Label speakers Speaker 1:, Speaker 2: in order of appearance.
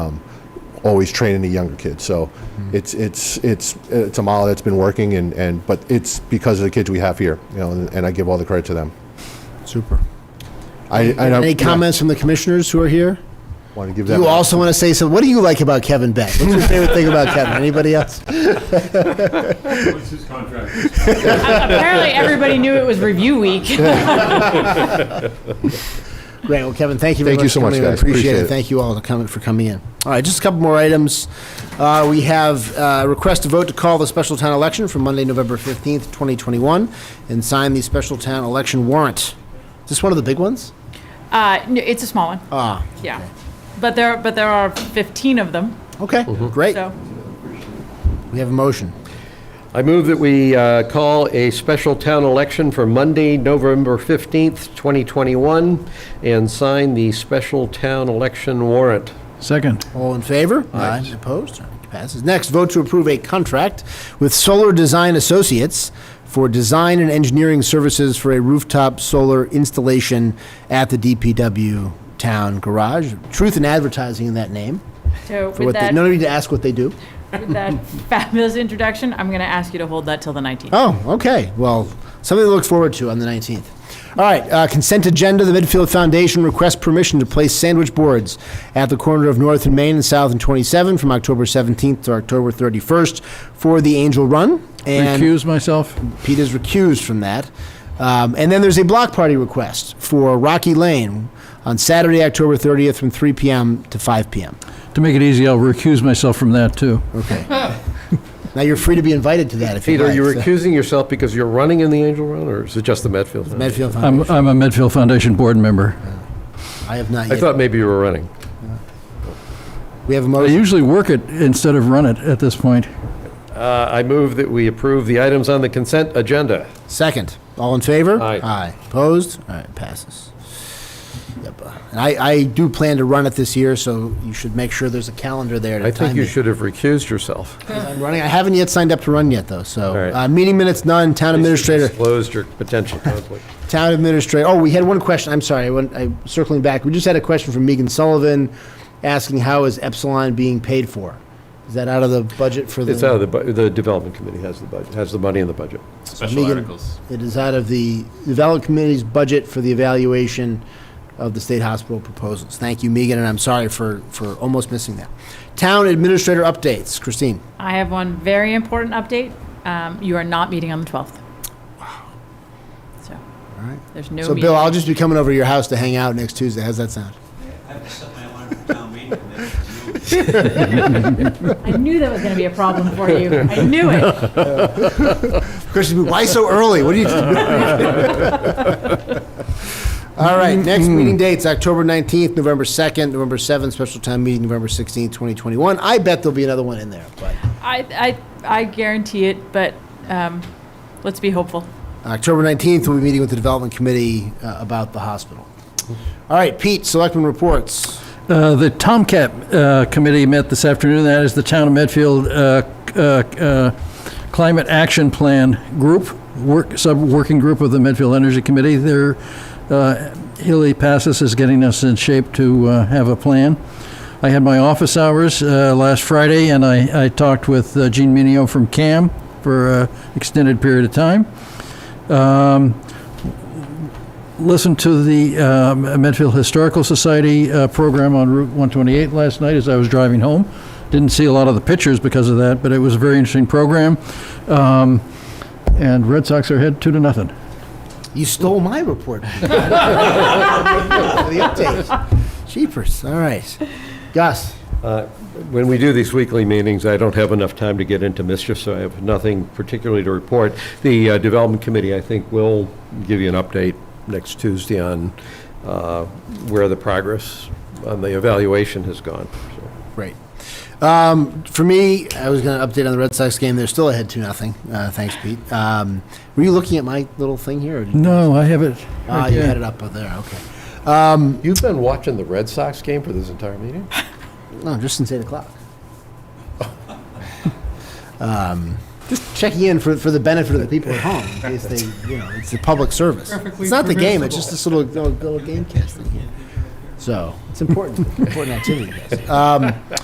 Speaker 1: um, always training the younger kids. So it's it's it's it's a model that's been working, and and but it's because of the kids we have here, you know, and, and I give all the credit to them.
Speaker 2: Super.
Speaker 1: I, I don't,
Speaker 2: Any comments from the commissioners who are here?
Speaker 1: Want to give
Speaker 2: Do
Speaker 1: that.
Speaker 2: you also want to say something? What do you like about Kevin Beck? What's your favorite thing about Kevin? Anybody else?
Speaker 3: What's his contract?
Speaker 4: Apparently, everybody knew it was review week.
Speaker 2: Great. Well, Kevin, thank you
Speaker 1: Thank
Speaker 2: very much.
Speaker 1: you so
Speaker 2: for
Speaker 1: much,
Speaker 2: coming. I
Speaker 1: guys.
Speaker 2: Appreciate,
Speaker 1: Appreciate
Speaker 2: it.
Speaker 1: it.
Speaker 2: Thank you all for coming for coming in. All right, just a couple more items. Uh, we have uh, request to vote to call the special town election for Monday, November fifteenth, twenty twenty one, and sign the special town election warrant. Is this one of the big ones?
Speaker 4: Uh, no, it's a small one.
Speaker 2: Ah,
Speaker 4: Yeah. But there, but there are 15 of them,
Speaker 2: okay, great.
Speaker 4: so.
Speaker 2: We have a motion.
Speaker 5: I move that we uh, call a special town election for Monday, November 15th, 2021, and sign the special town election warrant.
Speaker 6: Second.
Speaker 2: All in favor? Aye. Opposed? All right, Passes. Next, vote to approve a contract with Solar Design Associates for design and engineering services for a rooftop solar installation at the DPW Town Garage. Truth in advertising in that name.
Speaker 4: So
Speaker 2: For
Speaker 4: with
Speaker 2: what they,
Speaker 4: that,
Speaker 2: no
Speaker 4: with
Speaker 2: need to ask what they do.
Speaker 4: that fabulous introduction, I'm going to ask you to hold that till the 19th.
Speaker 2: Oh, okay. Well, something to look forward to on the 19th. All right, uh, consent agenda. The Midfield Foundation requests permission to place sandwich boards at the corner of North and Main and South and 27 from October 17th to October 31st for the Angel Run. And
Speaker 6: Recuse myself.
Speaker 2: Pete is recused from that. Um, and then there's a block party request for Rocky Lane on Saturday, October 30th from 3 p.m. to 5 p.m.
Speaker 6: To make it easy, I'll recuse myself from that, too.
Speaker 2: Okay. now you're free to be invited to that if you
Speaker 5: Peter, are
Speaker 2: like.
Speaker 5: you
Speaker 2: so-
Speaker 5: recusing yourself because you're running in the Angel Run, or is it just the Medfield?
Speaker 2: Medfield
Speaker 5: Um,
Speaker 2: Foundation.
Speaker 6: I'm, I'm a Medfield Foundation board member.
Speaker 2: I have not
Speaker 5: I
Speaker 2: yet.
Speaker 5: thought maybe you were running.
Speaker 2: we have a
Speaker 6: I
Speaker 2: motion.
Speaker 6: usually work it instead of run it at this point.
Speaker 5: Uh, I move that we approve the items on the consent agenda.
Speaker 2: Second. All in favor?
Speaker 5: Aye.
Speaker 2: Opposed? All right, passes. Yep. And I, I do plan to run it this year, so you should make sure there's a calendar there to
Speaker 5: I
Speaker 2: time
Speaker 5: think you
Speaker 2: it.
Speaker 5: should have recused yourself.
Speaker 2: I'm running. I haven't yet signed up to run yet, though. So
Speaker 5: All right.
Speaker 2: uh, meeting minutes none. Town administrator.
Speaker 5: Disclosed your potential conflict.
Speaker 2: Town administrator, oh, we had one question, I'm sorry, I went, I, circling back, we just had a question from Megan Sullivan asking how is Epsilon being paid for? Is that out of the budget for the?
Speaker 5: It's out of the, bu- the Development Committee has the budget, has the money in the budget.
Speaker 3: Special
Speaker 2: Megan-
Speaker 3: articles.
Speaker 2: It is out of the development committee's budget for the evaluation of the state hospital proposals. Thank you, Megan, and I'm sorry for, for almost missing that. Town administrator updates, Christine.
Speaker 4: I have one very important update. Um, You are not meeting on the 12th. So, there's no
Speaker 2: So
Speaker 4: meeting.
Speaker 2: Bill, I'll just be coming over to your house to hang out next Tuesday, how's that sound?
Speaker 7: I have to set my alarm for town meeting for next June.
Speaker 4: I knew that was going to be a problem for you. I knew it.
Speaker 2: Christine, why so early? What are you? All right, next meeting dates, October 19th, November 2nd, November 7th, special time meeting, November 16th, 2021. I bet there'll be another one in there, but
Speaker 4: I, I, I guarantee it, but um, let's be hopeful.
Speaker 2: Uh, October 19th, we'll be meeting with the Development Committee uh, about the hospital. All right, Pete, Selectman reports.
Speaker 6: Uh, The Tomcat uh, Committee met this afternoon. That is the Town of Medfield uh, c- uh, uh, Climate Action Plan Group, work, sub-working group of the Medfield Energy Committee. Their, uh, Hilly Passes is getting us in shape to uh, have a plan. I had my office hours uh, last Friday, and I I talked with uh, Gene Minio from CAM for an extended period of time. Um, listened to the um, Medfield Historical Society uh, program on Route 128 last night as I was driving home. Didn't see a lot of the pictures because of that, but it was a very interesting program. Um, and Red Sox are ahead two to nothing.
Speaker 2: You stole my report. Pete. For the update. Jeepers, all right. Gus?
Speaker 5: Uh, When we do these weekly meetings, I don't have enough time to get into mischief, so I have nothing particularly to report. The uh, Development Committee, I think, will give you an update next Tuesday on uh, where the progress on the evaluation has gone. So,
Speaker 2: Right. Um, for me, I was going to update on the Red Sox game. They're still ahead two nothing. Uh, thanks, Pete. Um, were you looking at my little thing here? Or did you-
Speaker 6: No, I have it.
Speaker 2: Ah,
Speaker 6: right
Speaker 2: you
Speaker 6: there.
Speaker 2: had it up there. Okay.
Speaker 5: You've been watching the Red Sox game for this entire meeting?
Speaker 2: No, just since eight o'clock. um, just checking in for, for the benefit of the people at home, in case they, you know, it's a public service. it's not the game. It's just this little little, little game casting here. So it's important, important activity. Guys. Um,